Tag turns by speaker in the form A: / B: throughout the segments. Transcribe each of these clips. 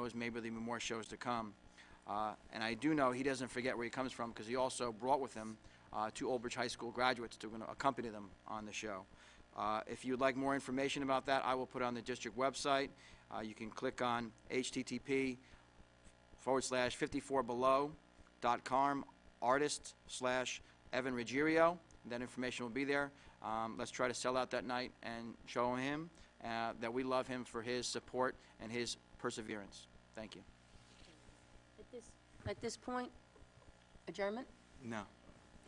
A: shows, maybe there'll be more shows to come. Uh, And I do know he doesn't forget where he comes from, because he also brought with him uh, two Old Bridge High School graduates to gonna accompany them on the show. Uh, If you'd like more information about that, I will put it on the district website. Uh, You can click on http forward slash 54 below dot com artist slash Evan Ruggiero. That information will be there. Um, let's try to sell out that night and show him uh, that we love him for his support and his perseverance. Thank you.
B: At this, at this point, adjournment?
C: No,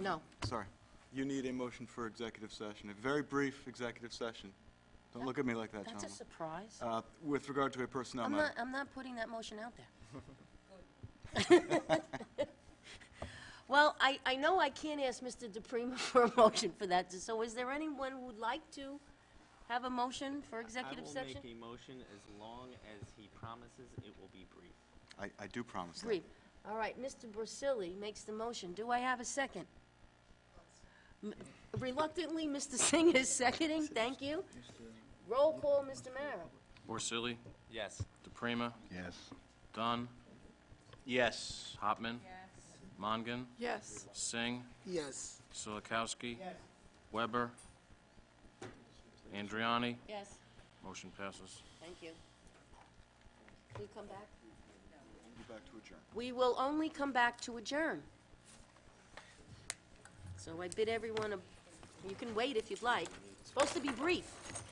B: No.
C: sorry. You need a motion for executive session, a very brief executive session. Don't look at me like that,
B: That's a
C: gentlemen.
B: surprise.
C: Uh, With regard to a personnel
B: I'm
C: matter.
B: not, I'm not putting that motion out there. Well, I, I know I can't ask Mr. DePrima for a motion for that, so is there anyone who'd like to have a motion for executive session?
D: I will make a motion as long as he promises it will be brief.
C: I, I do promise that.
B: Brief. All right, Mr. Brusili makes the motion. Do I have a second? M- Reluctantly, Mr. Singh is seconding, thank you. Roll call, Mr. Mara.
E: Borsili,
D: Yes.
E: DePrima. Yes. Dunn,
D: Yes.
E: Hopman. Mongan,
F: Yes.
E: Singh,
F: Yes.
E: Silikowski. Weber. Andriani.
B: Yes.
E: Motion passes.
B: Thank you. Will you come back?
C: Go back to adjourn.
B: We will only come back to adjourn. So I bid everyone, a- you can wait if you'd like. It's Supposed to be brief.